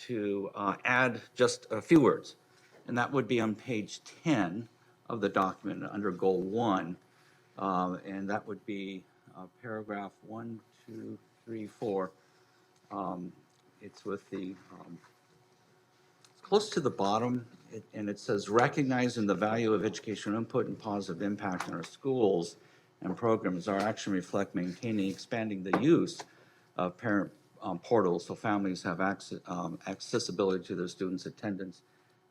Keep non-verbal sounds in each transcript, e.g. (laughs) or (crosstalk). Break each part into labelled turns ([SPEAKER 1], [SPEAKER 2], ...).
[SPEAKER 1] to uh, add just a few words. And that would be on page 10 of the document, under Goal 1. Um, And that would be uh, paragraph 1, 2, 3, 4. Um, It's with the um, close to the bottom, it- and it says recognizing the value of educational input and positive impact in our schools and programs, our action reflect maintaining, expanding the use of parent um, portals so families have access, accessibility to their students' attendance,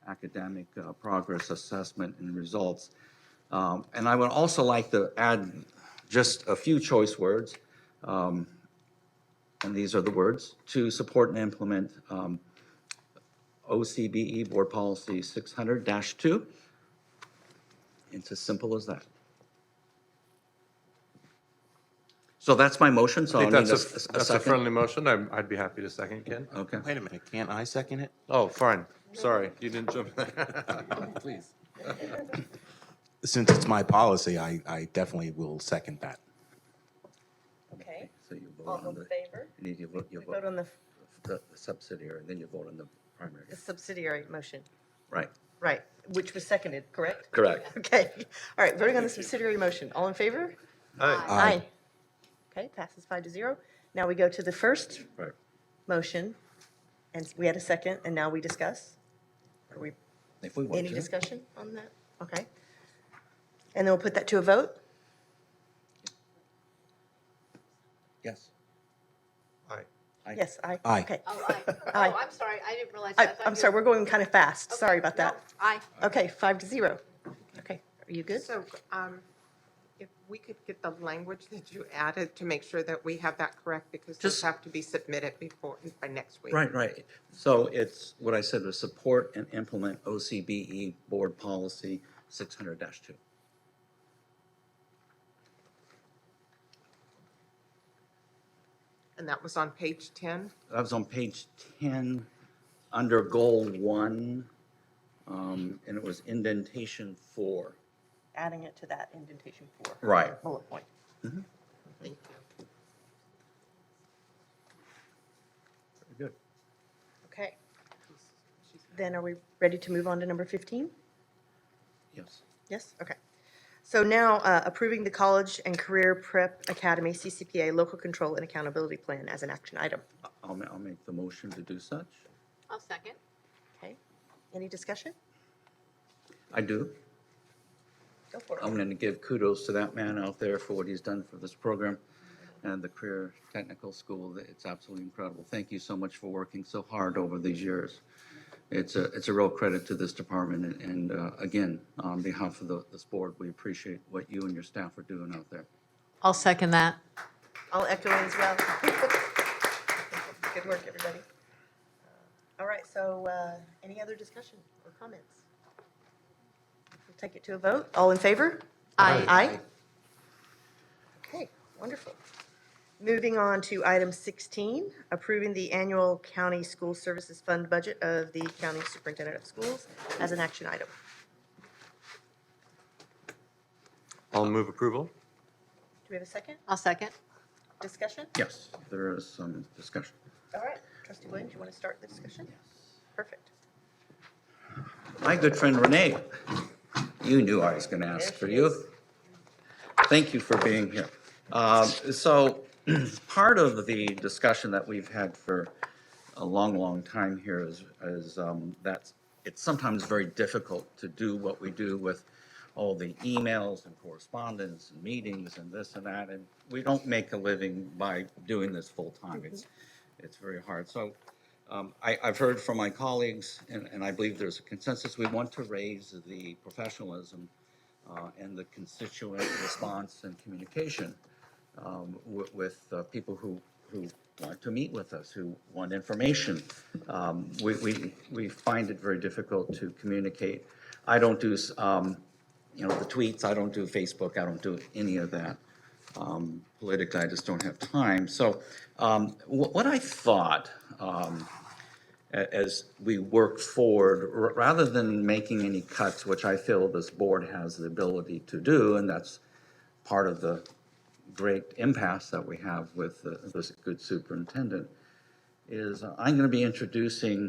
[SPEAKER 1] academic uh, progress, assessment, and results. Um, And I would also like to add just a few choice words, um, and these are the words, to support and implement um, OCBE E Board Policy 600-2. It's as simple as that. So that's my motion, so
[SPEAKER 2] I
[SPEAKER 1] I'll
[SPEAKER 2] think
[SPEAKER 1] Oh, need a
[SPEAKER 2] that's
[SPEAKER 1] s- a
[SPEAKER 2] a, that's a
[SPEAKER 1] second.
[SPEAKER 2] friendly motion. I'm, I'd be happy to second, Ken.
[SPEAKER 1] Okay,
[SPEAKER 3] Wait a minute, can't I second it?
[SPEAKER 2] Oh, fine. Sorry, you didn't jump (laughs) in there.
[SPEAKER 3] Please. Since it's my policy, I, I definitely will second that.
[SPEAKER 4] Okay,
[SPEAKER 1] so you vote
[SPEAKER 4] all
[SPEAKER 1] on
[SPEAKER 4] in
[SPEAKER 1] the,
[SPEAKER 4] favor?
[SPEAKER 1] you need to vote, you
[SPEAKER 4] We vote
[SPEAKER 1] vote
[SPEAKER 4] on the
[SPEAKER 1] the the subsidiary, and then you vote on the primary.
[SPEAKER 4] the subsidiary motion,
[SPEAKER 1] Right,
[SPEAKER 4] right, which was seconded, correct?
[SPEAKER 1] correct.
[SPEAKER 4] Okay, (laughs) all right, voting on the subsidiary motion, all in favor?
[SPEAKER 2] Aye.
[SPEAKER 3] Aye.
[SPEAKER 4] Okay, passes five to zero. Now we go to the first
[SPEAKER 1] Right.
[SPEAKER 4] motion, and we had a second, and now we discuss? Are we,
[SPEAKER 1] If we want
[SPEAKER 4] any
[SPEAKER 1] to.
[SPEAKER 4] discussion on that? Okay. And then we'll put that to a vote?
[SPEAKER 1] Yes.
[SPEAKER 2] Aye.
[SPEAKER 1] Aye.
[SPEAKER 4] Yes, aye?
[SPEAKER 3] Aye.
[SPEAKER 4] Okay. (laughs)
[SPEAKER 5] Oh, aye.
[SPEAKER 4] Aye.
[SPEAKER 5] Oh, I'm sorry, I didn't realize.
[SPEAKER 4] I,
[SPEAKER 5] that. I thought
[SPEAKER 4] I'm
[SPEAKER 5] you-
[SPEAKER 4] sorry, we're going kind of fast, sorry about
[SPEAKER 5] No,
[SPEAKER 4] that.
[SPEAKER 5] Aye.
[SPEAKER 4] Okay, five to zero. Okay, are you good?
[SPEAKER 6] So, um, if we could get the language that you added to make sure that we have that correct, because those
[SPEAKER 1] Just-
[SPEAKER 6] have to be submitted before, by next week.
[SPEAKER 1] Right, right. So it's, what I said was support and implement OCBE E Board Policy 600-2.
[SPEAKER 6] And that was on page ten?
[SPEAKER 1] That was on page 10, under Goal 1, um, and it was indentation 4.
[SPEAKER 4] Adding it to that indentation four.
[SPEAKER 1] Right.
[SPEAKER 4] Bullet point.
[SPEAKER 6] Thank you.
[SPEAKER 1] Good.
[SPEAKER 4] Okay. Then are we ready to move on to number 15?
[SPEAKER 1] Yes.
[SPEAKER 4] Yes, okay. So now uh, approving the College and Career Prep Academy CCPA Local Control and Accountability Plan as an action item.
[SPEAKER 1] I'll, ma- I'll make the motion to do such.
[SPEAKER 5] I'll second.
[SPEAKER 4] Okay, any discussion?
[SPEAKER 1] I do.
[SPEAKER 4] Go for
[SPEAKER 1] I'm
[SPEAKER 4] it.
[SPEAKER 1] going to give kudos to that man out there for what he's done for this program and the Career Technical School. It's absolutely incredible. Thank you so much for working so hard over these years. It's a, it's a real credit to this department. And, and uh, again, on behalf of the, this board, we appreciate what you and your staff are doing out there.
[SPEAKER 7] I'll second that.
[SPEAKER 4] I'll echo it as well. (laughs) Good work, everybody. All right, so uh, any other discussion or comments? We'll take it to a vote. All in favor?
[SPEAKER 7] Aye.
[SPEAKER 4] Aye. Okay, wonderful. Moving on to item 16, approving the annual county school services fund budget of the county superintendent of schools as an action item.
[SPEAKER 2] I'll move approval.
[SPEAKER 4] Do we have a second
[SPEAKER 7] I'll second.
[SPEAKER 4] discussion?
[SPEAKER 1] Yes, there is some discussion.
[SPEAKER 4] All right, trustee Williams, you want to start the discussion? Perfect.
[SPEAKER 1] My good friend Renee, you knew I was going to ask for you. Thank you for being here. Um, So (clears throat) part of the discussion that we've had for a long, long time here is, is um, that it's sometimes very difficult to do what we do with all the emails and correspondence and meetings and this and that. And we don't make a living by doing this full-time. It's, it's very hard. So um, I, I've heard from my colleagues, and, and I believe there's a consensus, we want to raise the professionalism uh, and the constituent response and communication um, with, with uh, people who, who want to meet with us, who want information. Um, we, we, we find it very difficult to communicate. I don't do, s- um, you know, the tweets, I don't do Facebook, I don't do any of that um, politically, I just don't have time. So um, wh- what I thought um, a- as we work forward, r- rather than making any cuts, which I feel this board has the ability to do, and that's part of the great impasse that we have with uh, this good superintendent, is I'm going to be introducing